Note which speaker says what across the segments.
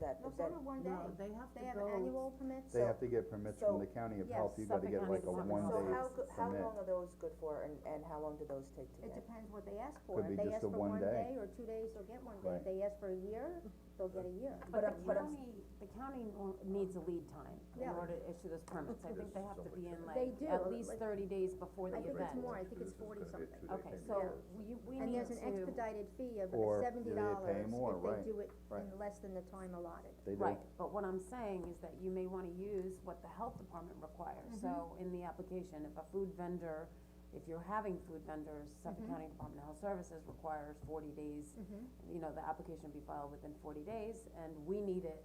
Speaker 1: that,
Speaker 2: No, it's
Speaker 1: that,
Speaker 2: only one day.
Speaker 3: No, they have to
Speaker 2: They have
Speaker 3: go-
Speaker 2: annual permits?
Speaker 4: They
Speaker 1: So-
Speaker 4: have to get permits from the
Speaker 1: so-
Speaker 4: county of
Speaker 2: yes,
Speaker 4: health, you gotta
Speaker 3: Suffolk
Speaker 4: get
Speaker 3: County
Speaker 4: like a
Speaker 3: wants it.
Speaker 4: one
Speaker 1: so
Speaker 4: day
Speaker 1: how, go- how
Speaker 4: permit.
Speaker 1: long are those good for and, and how long do those take to
Speaker 2: It
Speaker 1: get?
Speaker 2: depends what they ask for,
Speaker 4: Could
Speaker 2: if
Speaker 4: be
Speaker 2: they
Speaker 4: just
Speaker 2: ask
Speaker 4: a
Speaker 2: for
Speaker 4: one
Speaker 2: one
Speaker 4: day.
Speaker 2: day or two days, they'll get one day,
Speaker 4: Right.
Speaker 2: if they ask for a year, they'll get a year.
Speaker 1: But
Speaker 5: But
Speaker 1: I'm-
Speaker 5: the
Speaker 1: but I'm-
Speaker 5: county, the county nor- needs a lead time in
Speaker 2: Yeah.
Speaker 5: order to issue those permits, I think they have to be in
Speaker 2: They
Speaker 5: like,
Speaker 2: do,
Speaker 5: at least
Speaker 2: like-
Speaker 5: thirty days before the
Speaker 2: I think
Speaker 5: event.
Speaker 2: it's more, I think it's forty something.
Speaker 5: Okay, so we, we
Speaker 2: And
Speaker 5: need
Speaker 2: there's an
Speaker 5: to,
Speaker 2: expedited fee of
Speaker 4: Or
Speaker 2: seventy
Speaker 4: they pay
Speaker 2: dollars
Speaker 4: more, right,
Speaker 2: if they do it in
Speaker 4: right.
Speaker 2: less than the time allotted.
Speaker 4: They do,
Speaker 5: right, but what I'm saying is that you may wanna use what the health department requires,
Speaker 2: Mm-hmm.
Speaker 5: so in the application, if a food vendor, if you're having food vendors,
Speaker 2: Mm-hmm.
Speaker 5: Suffolk County Department of Health Services requires forty days,
Speaker 2: Mm.
Speaker 5: you know, the application be filed within forty days, and we need it,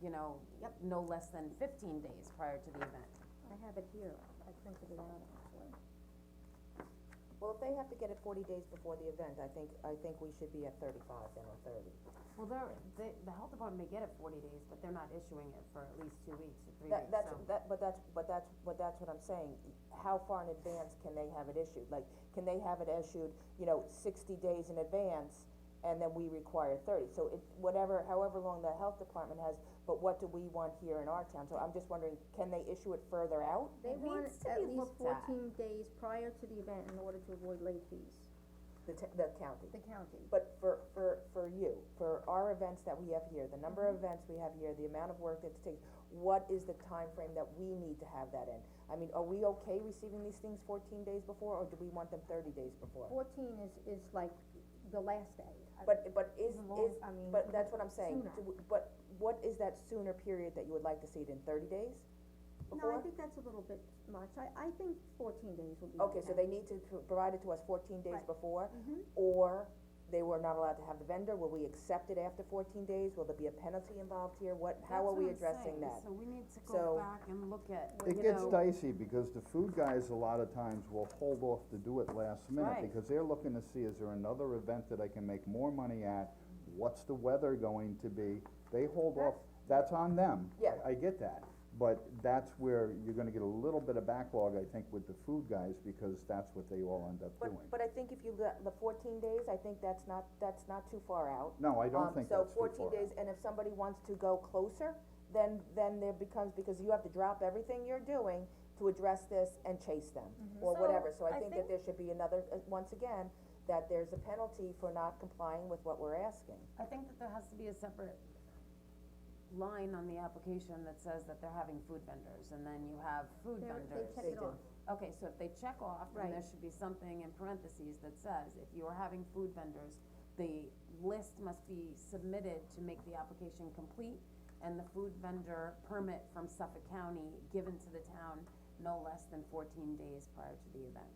Speaker 5: you know,
Speaker 2: Yep.
Speaker 5: no less than fifteen days prior to the event.
Speaker 2: I have it here, I printed it out actually.
Speaker 1: Well, if they have to get it forty days before the event, I think, I think we should be at thirty-five then, or thirty.
Speaker 5: Well, they're, they, the health department may get it forty days, but they're not issuing it for at least two weeks or three
Speaker 1: That,
Speaker 5: weeks,
Speaker 1: that's,
Speaker 5: so.
Speaker 1: that, but that's, but that's, but that's what I'm saying, how far in advance can they have it issued? Like, can they have it issued, you know, sixty days in advance, and then we require thirty? So it, whatever, however long the health department has, but what do we want here in our town? So I'm just wondering, can they issue it further out?
Speaker 2: They
Speaker 5: It
Speaker 2: want
Speaker 5: needs to
Speaker 2: at
Speaker 5: be
Speaker 2: least
Speaker 5: looked at.
Speaker 2: fourteen days prior to the event in order to avoid late fees,
Speaker 1: The t- the county?
Speaker 2: the county.
Speaker 1: But for, for, for you, for our events that we have here, the number
Speaker 2: Mm-hmm.
Speaker 1: of events we have here, the amount of work that takes, what is the time frame that we need to have that in? I mean, are we okay receiving these things fourteen days before, or do we want them thirty days before?
Speaker 2: Fourteen is, is like the last day. I-
Speaker 1: But, but is,
Speaker 2: Even longer,
Speaker 1: is,
Speaker 2: I mean,
Speaker 1: but that's what I'm saying,
Speaker 2: sooner.
Speaker 1: Do we- but what is that sooner period that you would like to see it in, thirty days
Speaker 2: No, I
Speaker 1: before?
Speaker 2: think that's a little bit much, I, I think fourteen days would be okay.
Speaker 1: Okay, so they need to pro- provide it to us fourteen days
Speaker 2: Right.
Speaker 1: before, or they were not allowed to have the vendor, will we accept it after fourteen days, will there be a penalty involved here, what, how are we addressing that?
Speaker 5: So we need to
Speaker 1: So-
Speaker 5: go back and look at,
Speaker 4: It
Speaker 5: you
Speaker 4: gets
Speaker 5: know,
Speaker 4: dicey, because the food guys, a lot of times, will hold off to do it last minute,
Speaker 5: Right.
Speaker 4: because they're looking to see, is there another event that I can make more money at? What's the weather going to be? They hold off, that's on them.
Speaker 1: Yeah.
Speaker 4: I get that, but that's where you're gonna get a little bit of backlog, I think, with the food guys, because that's what they all end up
Speaker 1: But,
Speaker 4: doing.
Speaker 1: but I think if you got the fourteen days, I think that's not, that's not too far out.
Speaker 4: No, I don't
Speaker 1: Um,
Speaker 4: think that's too
Speaker 1: So fourteen
Speaker 4: far
Speaker 1: days, and if somebody wants to go closer, then, then there becomes, because you have to drop everything you're doing to address this and chase them, or
Speaker 5: So,
Speaker 1: whatever, Mm-hmm. so I
Speaker 5: I
Speaker 1: think that
Speaker 5: think-
Speaker 1: there should be another, uh, once again, that there's a penalty for not complying with what we're asking.
Speaker 5: I think that there has to be a separate line on the application that says that they're having food vendors, and then you have food
Speaker 2: They're-
Speaker 5: vendors.
Speaker 2: They check
Speaker 1: They
Speaker 2: it
Speaker 1: do.
Speaker 2: off.
Speaker 5: Okay, so if they check off, then there
Speaker 2: Right.
Speaker 5: should be something in parentheses that says, if you are having food vendors, the list must be submitted to make the application complete, and the food vendor permit from Suffolk County given to the town no less than fourteen days prior to the event.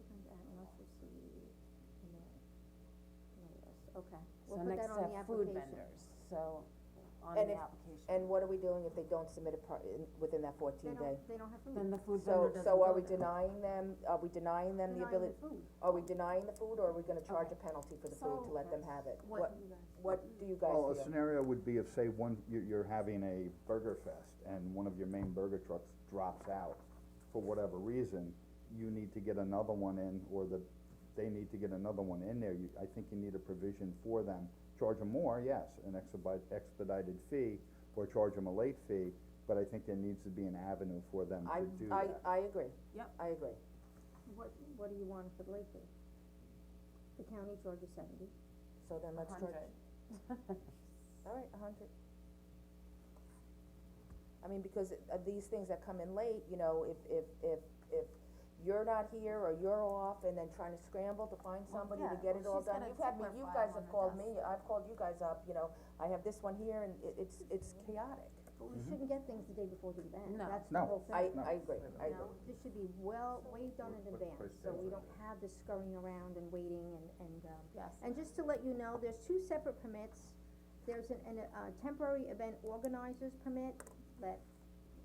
Speaker 2: Okay,
Speaker 5: So
Speaker 2: we'll put that
Speaker 5: next to
Speaker 2: on the
Speaker 5: have food
Speaker 2: application.
Speaker 5: vendors, so, on
Speaker 1: And
Speaker 5: the
Speaker 1: if-
Speaker 5: application.
Speaker 1: And what are we doing if they don't submit it par- in, within that
Speaker 2: They
Speaker 1: fourteen day?
Speaker 2: don't, they don't have food.
Speaker 5: Then the food
Speaker 1: So,
Speaker 5: vendor doesn't
Speaker 1: so are
Speaker 5: go
Speaker 1: we
Speaker 5: there.
Speaker 1: denying them, are we denying them the
Speaker 2: Denying
Speaker 1: ability,
Speaker 2: food.
Speaker 1: are we denying the food, or are we gonna charge a penalty for the food to
Speaker 5: So-
Speaker 1: let them have it?
Speaker 2: What do you guys-
Speaker 1: What do you guys
Speaker 4: Well, a
Speaker 1: feel?
Speaker 4: scenario would be if, say, one, you're, you're having a burger fest, and one of your main burger trucks drops out for whatever reason, you need to get another one in, or the, they need to get another one in there, you, I think you need a provision for them. Charge them more, yes, an expedite, expedited fee, or charge them a late fee, but I think there needs to be an avenue for them
Speaker 1: I,
Speaker 4: to do
Speaker 1: I,
Speaker 4: that.
Speaker 1: I agree.
Speaker 5: Yep.
Speaker 1: I agree.
Speaker 2: What, what do you want for the late fee? The county charges seventy,
Speaker 1: So then let's charge,
Speaker 5: 100.
Speaker 1: all right, a hundred. I mean, because it- uh, these things that come in late, you know, if, if, if, if you're not here or you're off and then trying to scramble to find
Speaker 5: Well,
Speaker 1: somebody
Speaker 5: yeah,
Speaker 1: to get it all
Speaker 5: well, she's
Speaker 1: done.
Speaker 5: got a
Speaker 1: You've had me,
Speaker 5: Tupperware
Speaker 1: you
Speaker 5: file
Speaker 1: guys
Speaker 5: on
Speaker 1: have
Speaker 5: her
Speaker 1: called
Speaker 5: desk.
Speaker 1: me, I've called you guys up, you know, I have this one here and it, it's, it's chaotic.
Speaker 2: but we shouldn't get things the day before the event,
Speaker 5: Mm-hmm. No.
Speaker 2: that's the
Speaker 4: No.
Speaker 2: whole thing.
Speaker 1: I, I agree, I
Speaker 2: No,
Speaker 1: agree.
Speaker 2: this should be well, way done in advance, so we don't have this scurrying around and waiting and, and, um,
Speaker 5: Yes.
Speaker 2: and just to let you know, there's two separate permits. There's an, an, uh, temporary event organizers permit that,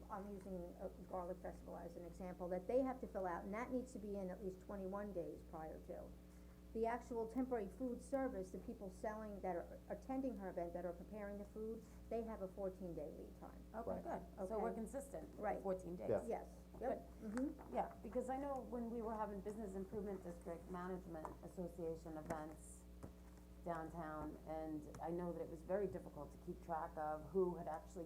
Speaker 2: I'm using uh, Garlic Festival as an example, that they have to fill out, and that needs to be in at least twenty-one days prior to. The actual temporary food service, the people selling, that are attending her event, that are preparing the food, they have a fourteen-day lead time.
Speaker 5: Okay,
Speaker 4: Right.
Speaker 5: good, so we're
Speaker 2: Okay.
Speaker 5: consistent,
Speaker 2: Right.
Speaker 5: fourteen days.
Speaker 4: Yeah.
Speaker 2: Yes, yep, mhm,
Speaker 5: Yeah, because I know when we were having Business Improvement District Management Association events, downtown, and I know that it was very difficult to keep track of who had actually